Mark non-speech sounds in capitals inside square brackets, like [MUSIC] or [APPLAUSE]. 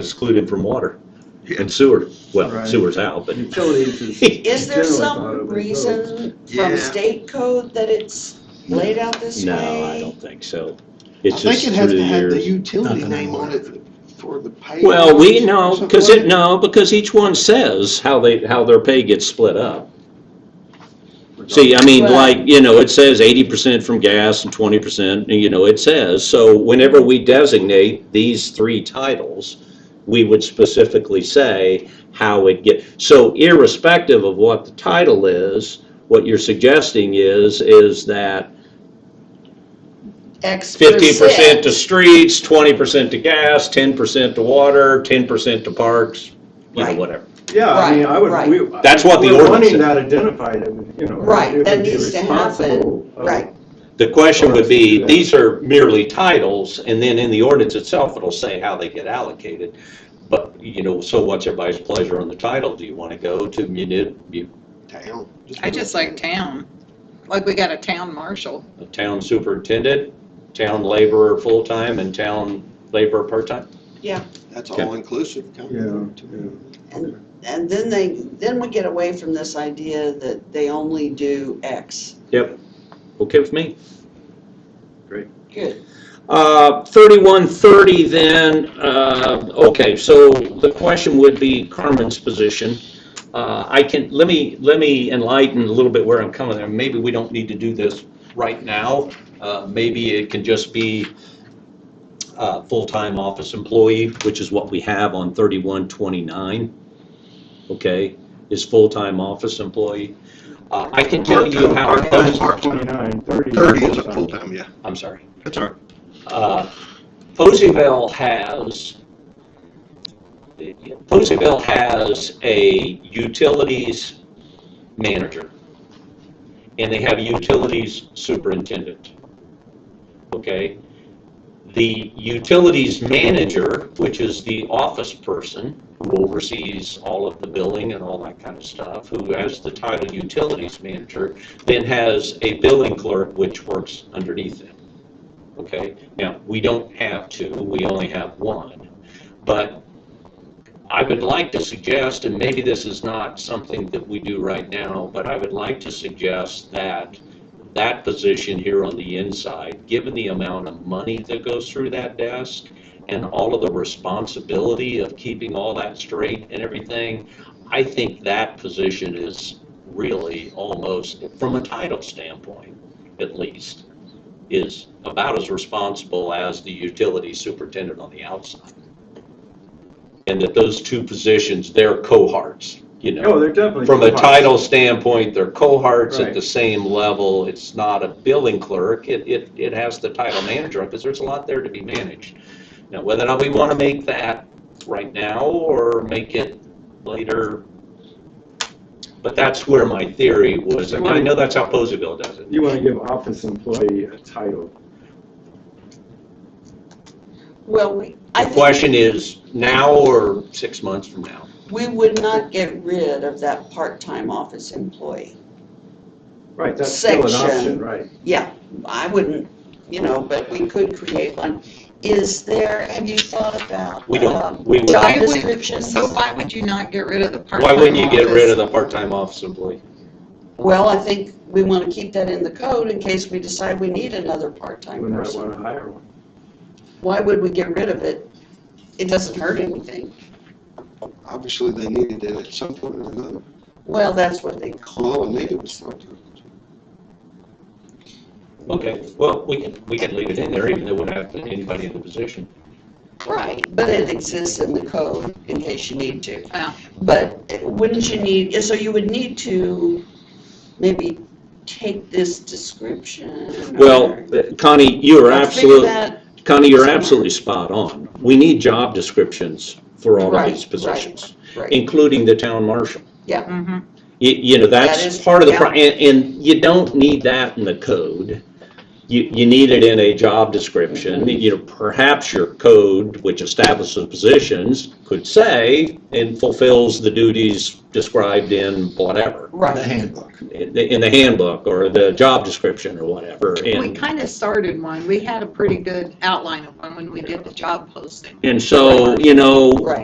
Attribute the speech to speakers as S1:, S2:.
S1: exclude him from water
S2: Yeah.
S1: and sewer. Well,
S3: Right.
S1: sewer's out, but [LAUGHS]
S3: Utilities is.
S4: Is there
S3: Generally thought
S4: some
S3: of as
S4: reason
S2: Yeah.
S4: from state code that it's laid out this
S1: no, I
S4: way?
S1: don't think so.
S5: I
S1: It's
S5: think
S1: just
S5: it
S1: through
S5: has
S1: the
S5: to have the
S1: years.
S5: utility
S3: Nothing
S5: name on
S3: anymore.
S5: it for the pay.
S1: Well, we,
S5: or
S1: no,
S5: something
S1: because
S5: like
S1: it,
S5: that.
S1: no, because each one says how they, how their pay gets split up. See, uh, I mean,
S4: Well-
S1: like, you know, it says eighty percent from gas and twenty percent, you know, it says, so whenever we designate these three titles, we would specifically say how it get, so irrespective of what the title is, what you're suggesting is, is that
S4: X
S1: fifteen percent to streets, twenty percent to gas, ten percent to water, ten percent to parks, you know,
S4: Right.
S1: whatever.
S3: Yeah, I mean, I
S4: Right,
S3: would, we.
S1: That's what the
S3: we're
S1: ordinance
S3: wanting that identified, and, you know.
S4: Right,
S3: it
S4: that
S3: would be
S4: needs to happen,
S3: responsible of-
S4: Right,
S1: The question would be, these are merely titles, and then in the ordinance itself, it'll say how they get allocated. But, you know, so what's everybody's pleasure on the title? Do you want to go to muni, mu-
S5: Town.
S6: I just like town. Like we got a town marshal.
S1: town superintendent, town laborer full-time, and town laborer part-time?
S5: That's
S1: Okay.
S5: all inclusive. kind
S3: Yeah,
S5: of.
S3: yeah.
S4: and then they, then we get away from this idea that they only do X.
S1: Yep. Okay with me.
S4: Good,
S1: Uh, 3130 then, uh, okay, so the question would be Carmen's position. Uh, I can, let me, let me enlighten a little bit where I'm coming there. Maybe we don't need to do this right now. Uh, Maybe it can just be uh, full-time office employee, which is what we have on 3129, okay, is full-time office employee. Uh, I can tell you how it
S3: Part-time,
S1: comes,
S3: part Twenty-nine, thirty.
S2: Thirty is a full-time, yeah,
S1: I'm sorry.
S2: that's all right.
S1: Uh, Poseyville has, Poseyville has a utilities manager, and they have a utilities superintendent. Okay? The utilities manager, which is the office person who oversees all of the billing and all that kind of stuff, who has the title utilities manager, then has a billing clerk which works underneath them. Okay, now, we don't have two, we only have one. But I would like to suggest, and maybe this is not something that we do right now, but I would like to suggest that that position here on the inside, given the amount of money that goes through that desk and all of the responsibility of keeping all that straight and everything, I think that position is really almost, from a title standpoint at least, is about as responsible as the utility superintendent on the outside. And that those two positions, they're cohorts, you
S3: No,
S1: know.
S3: Oh, they're definitely.
S1: From a
S3: full-time.
S1: title standpoint, they're cohorts at the
S3: Right.
S1: same level. It's not a billing clerk. It, it, it has the title manager because there's a lot there to be managed. Now, whether or not we want to make that right now or make it later, but that's where my theory was. And I know that's how Poseville does it.
S3: You wanna give office employee a title.
S4: well, we, I
S1: The
S4: think
S1: question is now or six months from now?
S4: we would not get rid of that part-time office employee.
S3: Right, that's still an
S4: Section.
S3: option, right.
S4: Yeah, I wouldn't, you know, but we could create one. Is there, have you thought about?
S1: We don't,
S4: um,
S1: we would,
S4: Job
S6: Why would-
S4: descriptions?
S6: So why would you not get rid of the part-time
S1: why wouldn't you get rid
S6: office?
S1: of the part-time office employee?
S4: Well, I think we want to keep that in the code in case we decide we need another
S3: We
S4: part-time
S3: might
S4: person.
S3: wanna hire one.
S4: Why would we get rid of it? It doesn't hurt anything.
S5: Obviously, they needed it at some point or another.
S4: Well, that's what they call,
S5: All it needed was full-time.
S1: Okay, well, we can, we can leave it in there even though we don't have anybody in the position.
S4: right, but it exists in the code in case you need to.
S6: Yeah.
S4: But wouldn't you need, so you would need to maybe take this description.
S1: Well,
S4: or-
S1: Connie, you are
S4: or fix
S1: absolutely,
S4: that.
S1: Connie, you're absolutely spot on. We need job descriptions for all of
S4: Right,
S1: these
S4: right.
S1: positions,
S4: Right,
S1: including the town marshal.
S6: Mhm.
S1: You, you know,
S4: That is-
S1: that's part of the, pro-
S4: yeah.
S1: and, and you don't need that in the code. you, you need it in a job description, you know, perhaps your code, which establishes positions, could say, and fulfills the duties described in whatever,
S5: The
S4: Right.
S5: handbook.
S1: in the in the handbook, or the job description, or whatever,
S6: We
S1: and,
S6: kind of started one. We had a pretty good outline of one when we did the job posting.
S1: and so, you know,
S4: Right.